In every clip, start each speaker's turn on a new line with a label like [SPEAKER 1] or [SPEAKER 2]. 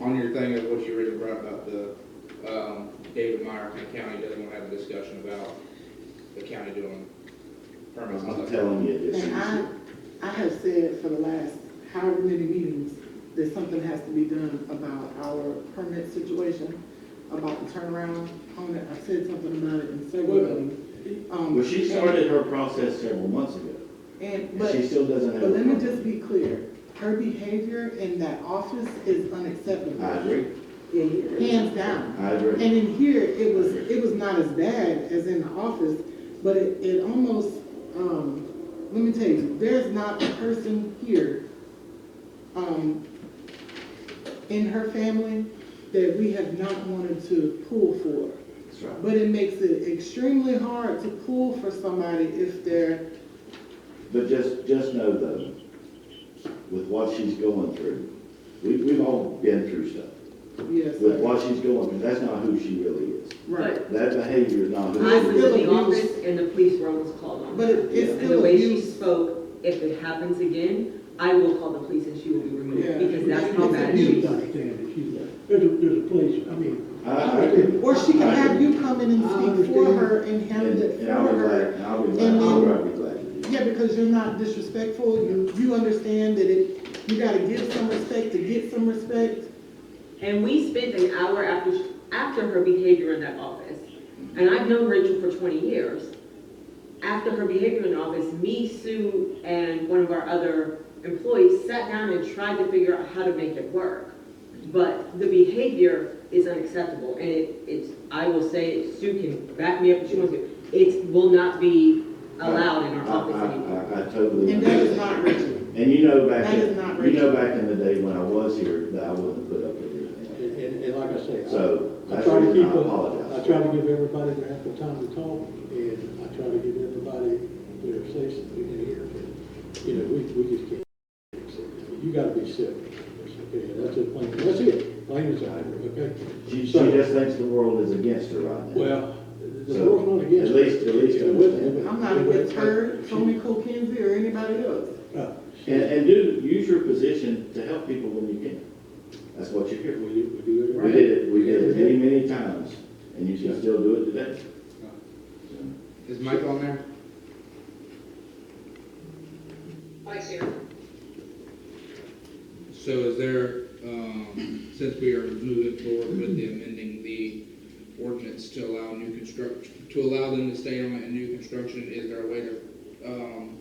[SPEAKER 1] on your thing of what you originally brought about the, um, David Meyer, Kent County doesn't want to have a discussion about the county doing permits and
[SPEAKER 2] I'm
[SPEAKER 1] stuff.
[SPEAKER 2] telling you, this
[SPEAKER 3] And I,
[SPEAKER 2] is,
[SPEAKER 3] I have said for the last however many meetings, that something has to be done about our permit situation, about the turnaround on it. I said something about it in several meetings. Um,
[SPEAKER 2] well, she started her process several months ago,
[SPEAKER 3] And,
[SPEAKER 2] and
[SPEAKER 3] but,
[SPEAKER 2] she still doesn't have.
[SPEAKER 3] but
[SPEAKER 2] a
[SPEAKER 3] let me
[SPEAKER 2] permit.
[SPEAKER 3] just be clear, her behavior in that office is unacceptable.
[SPEAKER 2] I agree,
[SPEAKER 3] Hands down.
[SPEAKER 2] I agree.
[SPEAKER 3] And in here, it was, it was not as bad as in the office, but it, it almost, um, let me tell you, there's not a person here, um, in her family that we have not wanted to pull for.
[SPEAKER 2] That's right.
[SPEAKER 3] But it makes it extremely hard to pull for somebody if they're,
[SPEAKER 2] But just, just know though, with what she's going through, we, we've all been through stuff.
[SPEAKER 3] yes,
[SPEAKER 2] With
[SPEAKER 3] sir,
[SPEAKER 2] what she's going through, that's not who she really is.
[SPEAKER 3] right.
[SPEAKER 2] That behavior is not
[SPEAKER 4] I
[SPEAKER 2] who
[SPEAKER 4] was
[SPEAKER 2] she is.
[SPEAKER 4] in the office and the police were almost called on.
[SPEAKER 3] But it- it's
[SPEAKER 4] And the
[SPEAKER 3] still
[SPEAKER 4] way she
[SPEAKER 3] abuse.
[SPEAKER 4] spoke, if it happens again, I will call the police and she will be
[SPEAKER 3] Yeah.
[SPEAKER 4] removed, because that's how
[SPEAKER 3] It's
[SPEAKER 4] bad
[SPEAKER 3] abuse.
[SPEAKER 4] she
[SPEAKER 5] You
[SPEAKER 4] is.
[SPEAKER 5] understand that she's, there's a, there's a place, I mean,
[SPEAKER 2] I, I agree.
[SPEAKER 3] Or she can
[SPEAKER 2] I
[SPEAKER 3] have
[SPEAKER 2] agree.
[SPEAKER 3] you come in and speak for her and handle
[SPEAKER 2] And,
[SPEAKER 3] it for
[SPEAKER 2] and I'll be
[SPEAKER 3] her.
[SPEAKER 2] glad, and I'll be glad,
[SPEAKER 3] And then-
[SPEAKER 2] I'll be glad to do that.
[SPEAKER 3] Yeah, because you're not disrespectful, you, you understand that it, you gotta give some respect to get some respect.
[SPEAKER 4] And we spent an hour after, sh- after her behavior in that office, and I've known Rachel for twenty years. After her behavior in the office, me, Sue, and one of our other employees sat down and tried to figure out how to make it work. But the behavior is unacceptable, and it, it's, I will say, it, Sue can back me up if she wants to, it will not be allowed in our
[SPEAKER 2] I-
[SPEAKER 4] office
[SPEAKER 2] I-
[SPEAKER 4] anymore.
[SPEAKER 2] I, I totally.
[SPEAKER 3] And that
[SPEAKER 2] understand.
[SPEAKER 3] is not Richard.
[SPEAKER 2] And you know back,
[SPEAKER 3] That is not
[SPEAKER 2] in- you know back in the day when I was here, that I wouldn't put up with anything.
[SPEAKER 5] and, and, and like I say, I-
[SPEAKER 2] So
[SPEAKER 5] I
[SPEAKER 2] that's
[SPEAKER 5] try
[SPEAKER 2] the
[SPEAKER 5] to
[SPEAKER 2] reason
[SPEAKER 5] keep,
[SPEAKER 2] I
[SPEAKER 5] a- I
[SPEAKER 2] apologize.
[SPEAKER 5] try to give everybody their ample time to talk, and I try to give everybody their say something in here. You know, we, we just can't, accept that. you gotta be civil, okay, and that's it, plain, that's it, plain as I, okay?
[SPEAKER 2] She, she
[SPEAKER 5] So-
[SPEAKER 2] just thinks the world is against her right now.
[SPEAKER 5] Well, the
[SPEAKER 2] So,
[SPEAKER 5] world's not against.
[SPEAKER 2] at least- at least
[SPEAKER 5] Yeah, with-
[SPEAKER 2] understand.
[SPEAKER 3] I'm not with her, Tony Cole Kinsey, or anybody else.
[SPEAKER 5] Uh,
[SPEAKER 2] And, and do, use your position to help people when you can. That's what you're
[SPEAKER 5] We
[SPEAKER 2] here
[SPEAKER 5] do, we do it.
[SPEAKER 2] for.
[SPEAKER 5] right.
[SPEAKER 2] We did it, we did it many, many times, and you can still do it today.
[SPEAKER 1] Is Mike on there? So is there, um, since we are moving forward with the amending the ordinance to allow new construction, to allow them to stay on in new construction, is there a way to, um,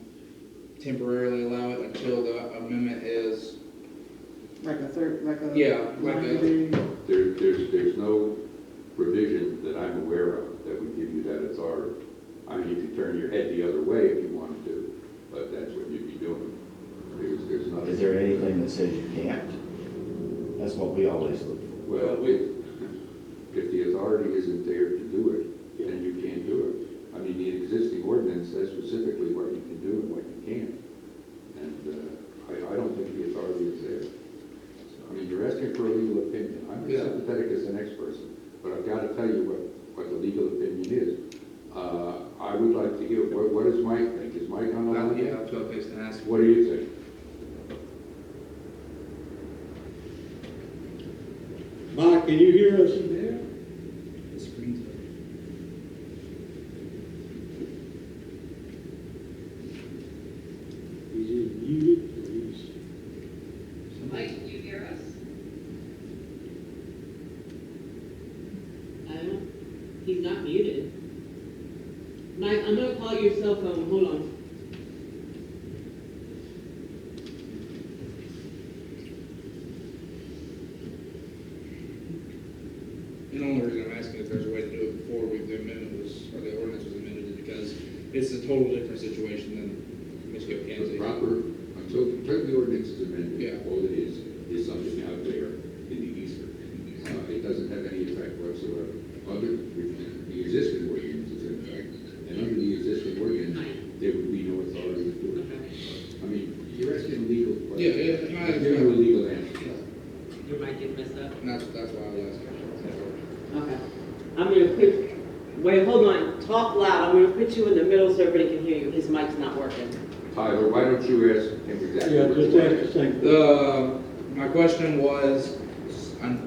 [SPEAKER 1] temporarily allow it until the amendment is,
[SPEAKER 3] Like a third, like a.
[SPEAKER 1] Yeah, like a-
[SPEAKER 6] There, there's, there's no provision that I'm aware of that would give you that authority. I mean, you could turn your head the other way if you wanted to, but that's what you'd be doing. There's, there's nothing.
[SPEAKER 2] Is there anything that says you can't? That's what we always look for.
[SPEAKER 6] Well, if, if the authority isn't there to do it, then you can't do it. I mean, the existing ordinance says specifically what you can do and what you can't. And, uh, I, I don't think the authority is there. I mean, you're asking for a legal opinion. I'm as
[SPEAKER 1] Yeah.
[SPEAKER 6] sympathetic as the next person, but I've got to tell you what, what the legal opinion is. Uh, I would like to hear, what, what does Mike think? Is Mike on the
[SPEAKER 1] well,
[SPEAKER 6] line?
[SPEAKER 1] yeah, that's what I was gonna ask.
[SPEAKER 6] What do you think?
[SPEAKER 5] Mike, can you hear us?
[SPEAKER 1] The screen's up.
[SPEAKER 5] He's either muted or he's.
[SPEAKER 7] Mike, can you hear us?
[SPEAKER 8] I don't, he's not muted. Mike, I'm gonna call your cell phone, hold on.
[SPEAKER 1] And the only reason I'm asking if there's a way to do it before we, the amendment was, or the ordinance was amended, is because it's a total different situation than Ms.
[SPEAKER 6] The
[SPEAKER 1] Gilkins.
[SPEAKER 6] proper, until, until the ordinance is amended,
[SPEAKER 1] Yeah.
[SPEAKER 6] all it is, is something out there in the ether. Uh, it doesn't have any effect whatsoever. Other, the existing ordinance is in effect, and under the existing ordinance, there would be no authority to do it. I mean, you're asking a legal question.
[SPEAKER 1] Uh-huh. Yeah, yeah, no, I
[SPEAKER 6] You're giving a legal answer.
[SPEAKER 8] Your mic is messed up.
[SPEAKER 1] And that's, that's why I was asking.
[SPEAKER 8] Okay. I'm gonna put, wait, hold on, talk loud, I'm gonna put you in the middle so everybody can hear you, his mic's not working.
[SPEAKER 6] Tyler, why don't you ask him exactly?
[SPEAKER 5] Yeah,
[SPEAKER 6] what
[SPEAKER 5] just
[SPEAKER 6] you
[SPEAKER 5] ask the
[SPEAKER 6] want?
[SPEAKER 5] same.
[SPEAKER 1] The, my question was,